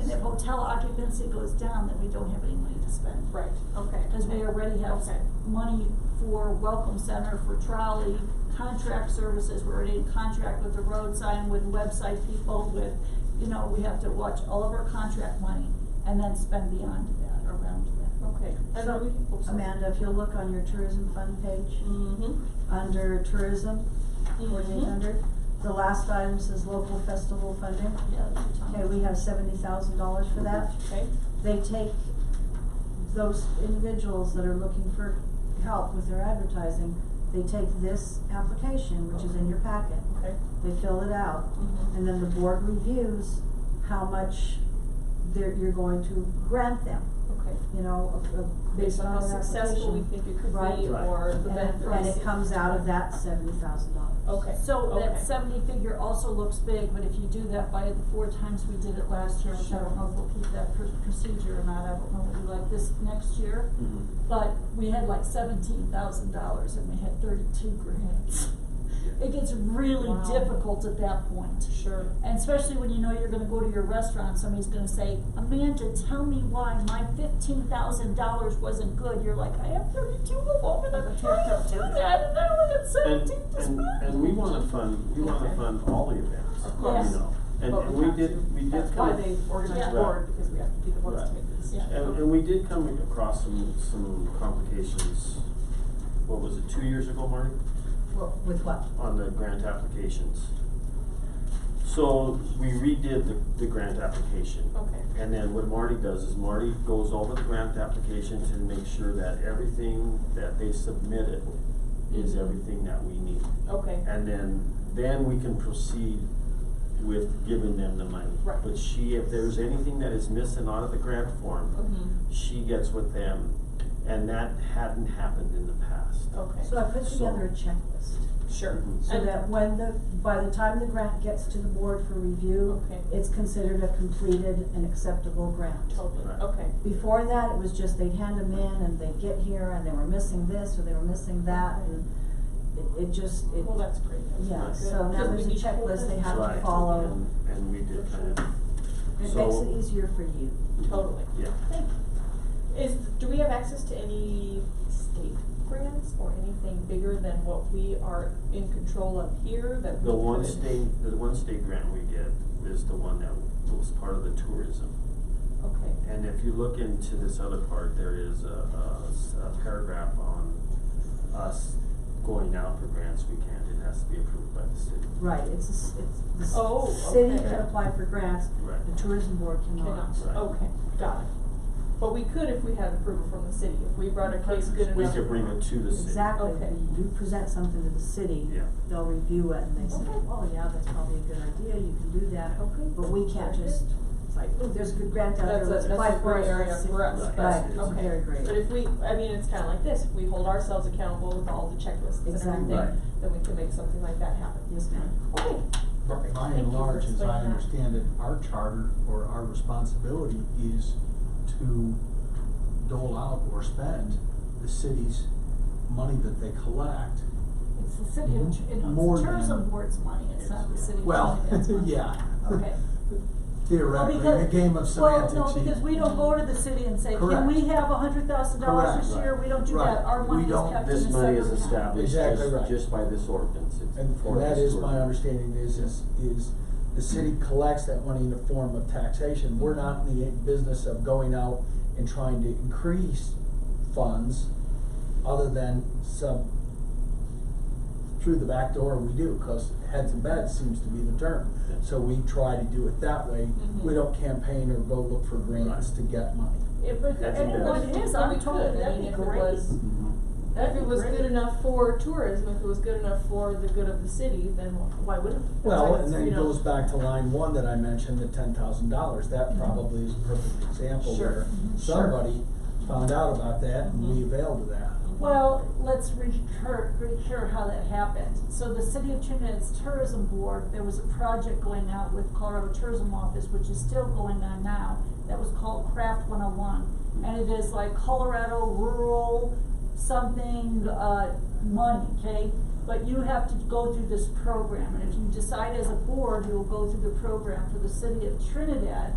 if hotel occupancy goes down, then we don't have any money to spend. Right, okay. Cause we already have Okay. money for welcome center, for trolley, contract services, we're already in contract with the road sign, with website people, with, you know, we have to watch all of our contract money and then spend beyond that, around that. Okay, and then we can. oh, So, sorry. Amanda, if you'll look on your tourism fund page, Mhm. under tourism, forty-eight hundred, the last item says local festival funding. Yeah, that's what Tom- Okay, we have seventy thousand dollars for that. Okay, They take those individuals that are looking for help with their advertising, they take this application, which is in your packet. okay. They fill it out, Mhm. and then the board reviews how much they're, you're going to grant them, Okay. you know, of- of- Based on how that successful we application. think it could Right. be Right. or the And it, benefits. and it comes out of that seventy thousand dollars. Okay, So okay. that seventy figure also looks big, but if you do that by the four times we did it last year, which I don't know if we'll keep that pr- procedure or not, I don't know what you like this next year. Mhm. But we had like seventeen thousand dollars and we had thirty-two grants. It gets really Wow. difficult at that point. Sure. And especially when you know you're gonna go to your restaurant, somebody's gonna say, Amanda, tell me why my fifteen thousand dollars wasn't good. You're like, I have thirty-two of them and I'm trying to do that and now I got And, seventeen to and, spend. and we wanna fund, we wanna Okay. fund all the events, Of you course. know, and, But and we have to. did, we did. That's come- why they organize Yeah. the board, because we have to be the ones Right. to make the decision. And, and we did come across some, some complications, what was it, two years ago, Marty? Well, with what? on the grant applications. So we redid the, the grant application. Okay. And then what Marty does is Marty goes over the grant applications and makes sure that everything that they submitted is everything that we need. Okay, And then, then we can proceed with giving them the money. Right. But she, if there's anything that is missing out of the grant form, mhm, she gets with them, and that hadn't happened in the past. So okay, I put together a checklist, sure. so And- that when the, by the time the grant gets to the board for review, Okay. it's considered a completed and acceptable grant. Totally, Right. okay. Before that, it was just they'd hand them in and they'd get here and they were missing this or they were missing that and it, it just, it, Well, that's great, that's yeah, good. so now Because we there's a need to hold checklist they them. have to Right, follow. and, and we did kind of, It makes so- it easier for you. Totally. yeah. Thank you. Is, do we have access to any state grants or anything bigger than what we are in control of here that we The one could- state, the one state grant we get is the one that was part of the tourism. Okay, And if you look into this other part, there is a, a s- a paragraph on us going out for grants we can't, it has to be approved by the city. Right, it's, a s- it's, the Oh, s- city okay. can apply for grants, Right. the tourism board cannot. cannot, Oh. Right. okay, got it. But we could if we had approval from the city, if we brought a case good We enough. could bring it to the city. Exactly, Okay. When you present something to the city, Yeah. they'll review it and they say, Okay. oh yeah, that's probably a good idea, you can do that. Okay. But we can't Very just, good. it's like, ooh, there's a good grant out there, That's a, let's that's apply a for gray it, area let's see." for us, Right, but, it's- okay. very gray. But if we, I mean, it's kinda like this, we hold ourselves accountable with all the checklists and everything, Exactly. Right. then we can make something like that happen. Yes, ma'am. Okay, But perfect, By thank you and for large, as I explaining that. understand it, our charter or our responsibility is to dole out or spend the city's money that they collect. It's the city of, Tr- you know, More it's than- tourism board's money, it's not the city of Well, Trinidad's money. yeah. Okay. Well, Theoretically, in a because- game of semantics. Well, no, you- because we don't go to the city and say, can Correct. we have a hundred thousand dollars this Correct. year? We don't do Right. that, our We money is don't- kept in a separate account. This money is established Exactly just, right. just by this ordinance, it's. And for and that this is my tourism. understanding is, is, is the city collects that money in the form of taxation. We're not in the business of going out and trying to increase funds other than some, through the back door we do, cause heads and beds seems to be the term. Yeah. So we try to do it that way. Mhm. We don't campaign or go look for grants Right. to get money. If we could, That's and it embarrassing. was, Well, it is. if I'm we told could, I that'd mean, be if it great. was, Mhm. if That'd it be was great. good enough for tourism, if it was good enough for the good of the city, then wh- why wouldn't? it? That's Well, like it's, and then you it know, goes back to line one that I mentioned, the ten thousand dollars, that probably is a perfect example Mm-hmm. Sure. where Mhm. Sure. somebody found out about that and we availed of that. Well, let's recur, recur how that happened. So the City of Trinidad's Tourism Board, there was a project going out with Colorado Tourism Office, which is still going on now, that was called Craft One Oh One. And it is like Colorado rural something, uh, money, okay? But you have to go through this program, and if you decide as a board, you will go through the program for the City of Trinidad